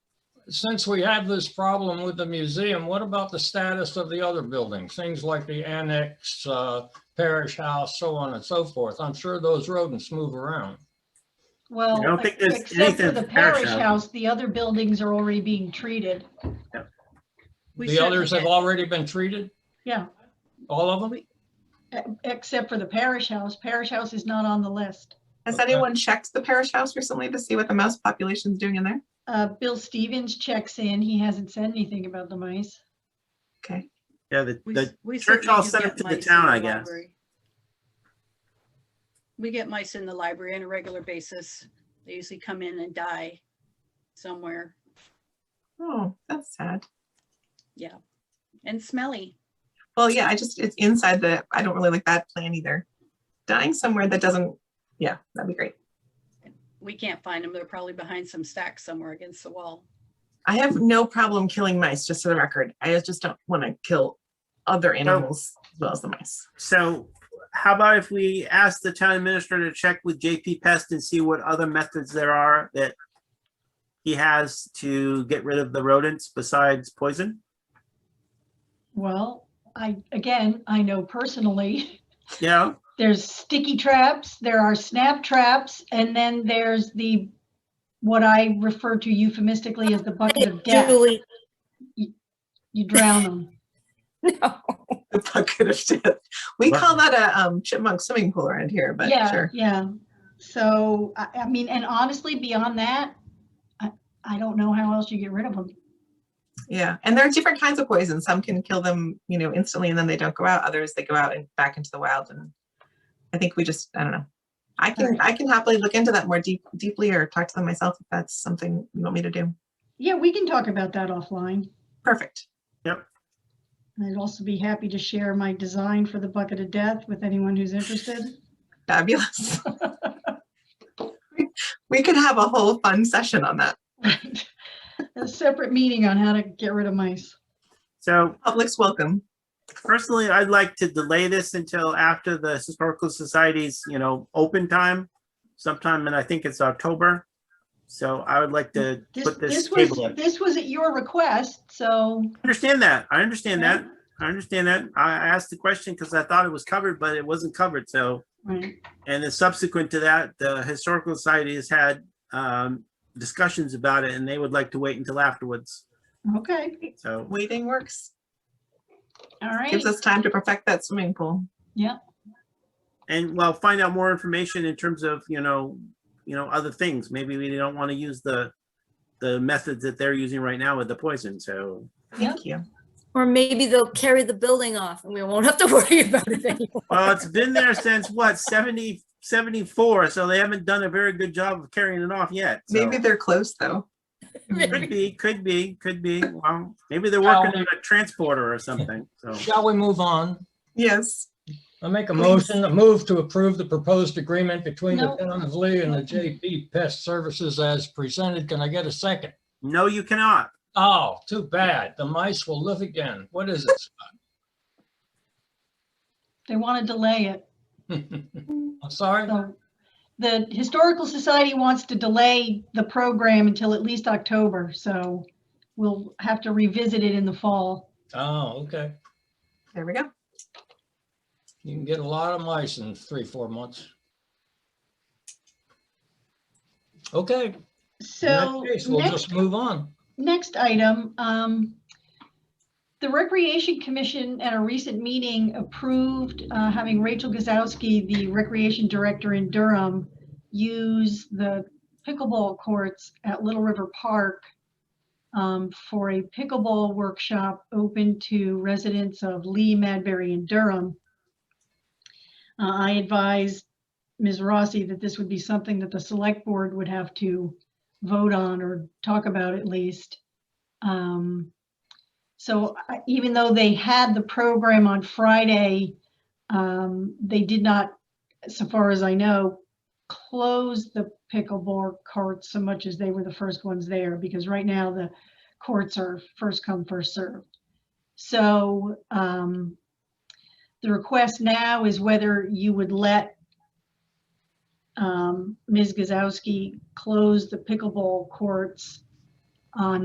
since we have this problem with the museum, what about the status of the other buildings? Things like the annex, uh, parish house, so on and so forth. I'm sure those rodents move around. Well, I don't think there's except for anything the at the parish parish house. house, the other buildings are already being treated. We The said others that- have already been treated? Yeah. All of them? e- Except for the parish house. Parish house is not on the list. Has Okay. anyone checked the parish house recently to see what the mouse population's doing in there? Uh, Bill Stevens checks in. He hasn't said anything about the mice. Okay. Yeah, the, we- the, we church certainly all do sent 'em get to the mice in town, I guess. library. We get mice in the library on a regular basis. They usually come in and die somewhere Oh, that's sad. and smelly. Well, yeah, I just, it's inside the, I don't really like that plan either. Dying somewhere that doesn't, yeah, that'd be great. We can't find them. They're probably behind some stack somewhere against the wall. I have no problem killing mice, just for the record. I just don't want to kill other animals as well as the mice. so how about if we ask the town administrator to check with JP Pest and see what other methods there are that he has to get rid of the rodents besides poison? Well, I, again, I know personally, Yeah, there's sticky traps, there are snap traps, and then there's the, what I refer to euphemistically as the bucket of death. Julie, You drown them. no. The bucket of death. We Wow. call that a um, chipmunk swimming pool around here, but yeah, sure. Yeah. So, I, I mean, and honestly, beyond that, I, I don't know how else you get rid of them. Yeah. And there are different kinds of poison. Some can kill them, you know, instantly and then they don't go out. Others they go out and back into the wild. And I think we just, I don't know. I can I can happily look into that more deep, deeply or talk to them myself if that's something you want me to do. Yeah, we can talk about that offline. Perfect. And I'd also be happy to share my design for the bucket of death with anyone who's interested. Fabulous. we could have a whole fun session on that. Right. A separate meeting on how to get rid of mice. so Public's welcome. personally, I'd like to delay this until after the Historical Society's, you know, open time, sometime, and I think it's October. So I would like to This, put this this was, table in. this was at your request, so. I understand that. I understand Yeah. that. I understand that. I I asked the question because I thought it was covered, but it wasn't covered, so. Right. And then subsequent to that, the Historical Society has had um, discussions about it and they would like to wait until afterwards. Okay, So Waiting works. all right. Gives us time to perfect that swimming pool. and well, find out more information in terms of, you know, you know, other things. Maybe we don't want to use the, the methods that they're using right now with the poison. So Thank you. Or maybe they'll carry the building off and we won't have to worry about it anymore. well, it's been there since what, 70, 74. So they haven't done a very good job of carrying it off yet. so- Maybe they're close though. Could be, could be, could be. Well, maybe they're working on a transporter or something. So Shall we move on? Yes. I make a Please. motion, to move to approve the proposed agreement between the No. town of Lee and the JP Pest Services as presented. Can I get a second? no, you cannot. Oh, too bad. The mice will live again. What is it? They want to delay it. I'm sorry? So the Historical Society wants to delay the program until at least October, so we'll have to revisit it in the fall. Oh, okay. There we go. You can get a lot of mice in three, four months. Okay, in So that case, we'll next, just move on. next item, um, the Recreation Commission at a recent meeting approved, uh, having Rachel Gazowski, the Recreation Director in Durham, use the pickleball courts at Little River Park um, for a pickleball workshop open to residents of Lee, Madbury, and Durham. Uh, I advised Ms. Rossi that this would be something that the select board would have to vote on or talk about at least. Um, So I- even though they had the program on Friday, um, they did not, so far as I know, close the pickleball courts so much as they were the first ones there, because right now the courts are first come, first served. So um, the request now is whether you would let um, Ms. Gazowski closed the pickleball courts on